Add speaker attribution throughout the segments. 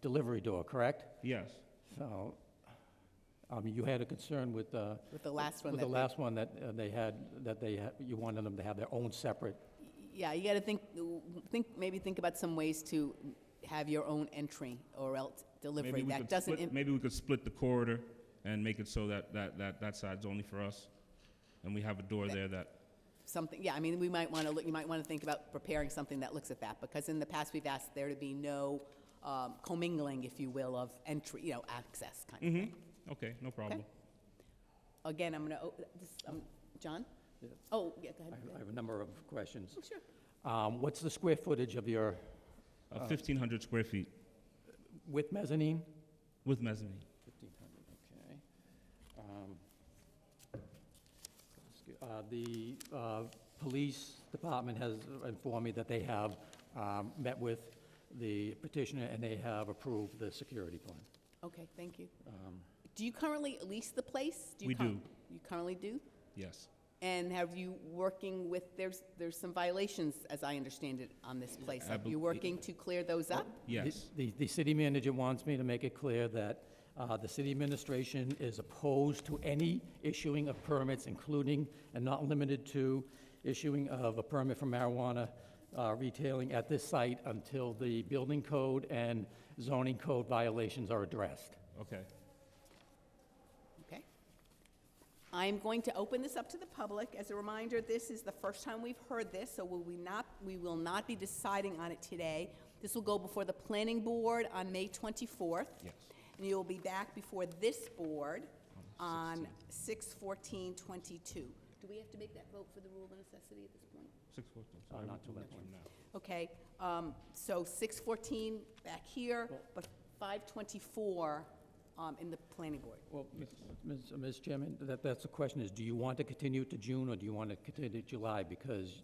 Speaker 1: delivery door, correct?
Speaker 2: Yes,
Speaker 1: So, um, you had a concern with, uh,
Speaker 3: With the last one
Speaker 1: with
Speaker 3: that
Speaker 1: the
Speaker 3: we-
Speaker 1: last one that uh, they had, that they, ha- you wanted them to have their own separate,
Speaker 3: Yeah, you got to think, think, maybe think about some ways to have your own entry or else
Speaker 2: maybe
Speaker 3: delivery.
Speaker 2: we
Speaker 3: That
Speaker 2: could
Speaker 3: doesn't,
Speaker 2: split,
Speaker 3: im-
Speaker 2: maybe we could split the corridor and make it so that, that, that, that side's only for us. And we have a door there that,
Speaker 3: something, yeah, I mean, we might want to, look. you might want to think about preparing something that looks at that, because in the past, we've asked there to be no um, commingling, if you will, of entry, you know, access kind of.
Speaker 2: hmm okay, no problem.
Speaker 3: Again, I'm going to, um, John? Oh, yeah, go
Speaker 1: I
Speaker 3: ahead.
Speaker 1: I have a number of questions.
Speaker 3: Oh, Sure.
Speaker 1: Um, What's the square footage of your,
Speaker 2: Uh, fifteen hundred square feet
Speaker 1: with mezzanine?
Speaker 2: with mezzanine.
Speaker 1: 1,500, okay. Um, excuse- uh, The uh, police department has informed me that they have um, met with the petitioner and they have approved the security plan. Um,
Speaker 3: Okay, thank you. Do you currently lease the place? you
Speaker 2: We
Speaker 3: cur-
Speaker 2: do.
Speaker 3: You currently do?
Speaker 2: Yes,
Speaker 3: And have you working with, there's, there's some violations, as I understand it, on this place.
Speaker 2: I
Speaker 3: Are you
Speaker 2: bel-
Speaker 3: working to clear those up?
Speaker 1: The-
Speaker 2: yes,
Speaker 1: The, the city manager wants me to make it clear that uh, the city administration is opposed to any issuing of permits, including and not limited to issuing of a permit for marijuana uh, retailing at this site until the building code and zoning code violations are addressed.
Speaker 2: okay.
Speaker 3: Okay. I'm going to open this up to the public. As a reminder, this is the first time we've heard this, so will we not, we will not be deciding on it today. This will go before the planning board on May 24th.
Speaker 2: Yes.
Speaker 3: And you'll be back before this board
Speaker 2: Oh,
Speaker 3: on 6/14/22. Do we have to make that vote for the rule of necessity at this point?
Speaker 2: Six fourteen,
Speaker 1: Uh,
Speaker 2: sorry.
Speaker 1: not till that point.
Speaker 3: Okay, um, so 6:14 back here, but 5:24 um, in the planning board.
Speaker 1: Well, Ms. Ms. Chairman, that, that's the question is, do you want to continue to June or do you want to continue to July? Because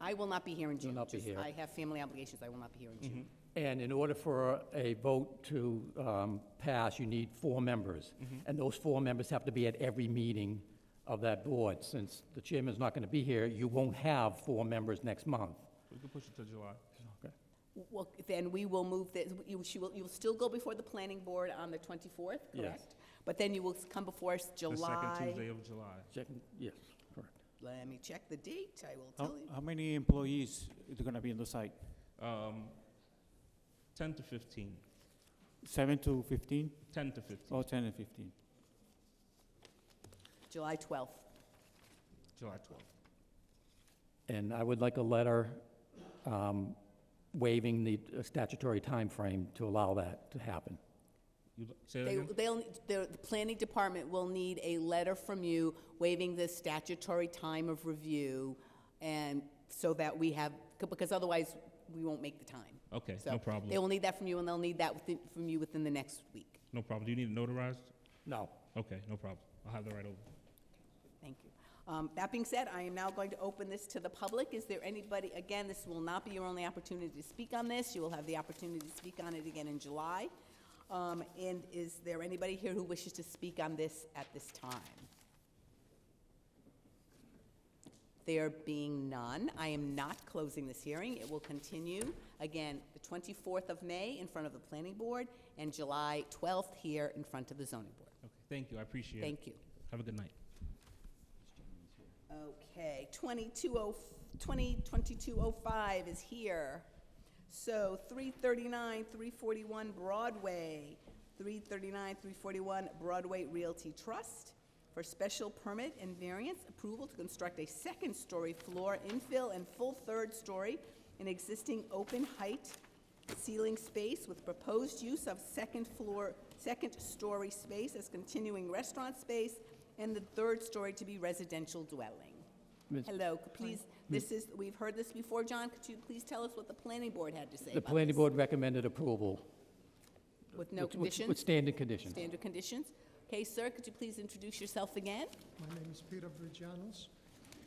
Speaker 3: I will not be here in June.
Speaker 1: not be
Speaker 3: just-
Speaker 1: here. Mm-hmm.
Speaker 3: I have family obligations, I will not be here in June.
Speaker 1: And in order for a vote to um, pass, you need four members. And those four members have to be at every meeting of that board. Since the chairman's not going to be here, you won't have four members next month.
Speaker 2: We can push it to July.
Speaker 3: Well, then we will move this, you, she will, you'll still go before the planning board on the 24th,
Speaker 1: Yes.
Speaker 3: correct? But then you will come before us
Speaker 2: The second
Speaker 3: July,
Speaker 2: Tuesday of July.
Speaker 1: Second, yes, correct.
Speaker 3: let me check the date, I will
Speaker 1: Oh.
Speaker 4: How,
Speaker 3: tell you.
Speaker 4: how many employees is going to be on the site?
Speaker 2: Um, ten to fifteen.
Speaker 4: Seven to 15
Speaker 2: Ten to fifteen,
Speaker 4: or 10 and 15?
Speaker 3: July 12th.
Speaker 2: July twelfth.
Speaker 1: And I would like a letter um, waiving the uh, statutory timeframe to allow that to happen.
Speaker 2: You, say that
Speaker 3: They,
Speaker 2: again?
Speaker 3: they'll, the, the planning department will need a letter from you waiving the statutory time of review, and so that we have, because otherwise, we won't make the time.
Speaker 2: Okay,
Speaker 3: So
Speaker 2: no problem.
Speaker 3: They will need that from you, and they'll need that within, from you within the next week.
Speaker 2: No problem. Do you need it notarized?
Speaker 1: No.
Speaker 2: Okay, no problem. I'll have that right over.
Speaker 3: Thank you. Um, That being said, I am now going to open this to the public. Is there anybody, again, this will not be your only opportunity to speak on this. You will have the opportunity to speak on it again in July. Um, And is there anybody here who wishes to speak on this at this time? There being none, I am not closing this hearing. It will continue, again, the 24th of May in front of the Planning Board and July 12th here in front of the Zoning Board.
Speaker 2: Okay, thank you. I appreciate it.
Speaker 3: Thank you.
Speaker 2: Have a good night.
Speaker 3: Okay, oh, 2205 is here. So 339, 341 Broadway, 339, 341 Broadway Realty Trust for special permit and variance approval to construct a second-story floor infill and full third story in existing open height ceiling space with proposed use of second floor, second-story space as continuing restaurant space and the third story to be residential dwelling.
Speaker 1: Ms.
Speaker 3: Hello, could please, this is, we've heard this before, John, could you please tell us what the planning board had to say
Speaker 1: The
Speaker 3: about
Speaker 1: planning
Speaker 3: this?
Speaker 1: board recommended approval.
Speaker 3: With no
Speaker 1: with- with- With
Speaker 3: conditions,
Speaker 1: standard conditions.
Speaker 3: standard conditions? Okay, sir, could you please introduce yourself again?
Speaker 5: My name is Peter Virgianos.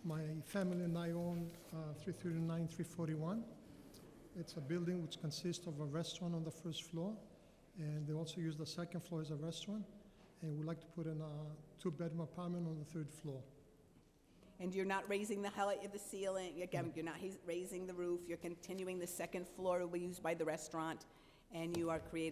Speaker 5: My family and I own uh, 339, 341. It's a building which consists of a restaurant on the first floor, and they also use the second floor as a restaurant. And we'd like to put in a two-bedroom apartment on the third floor.
Speaker 3: And you're not raising the height of the ceiling, again, you're not hais- raising the roof, you're continuing the second floor to be used by the restaurant, and you are creating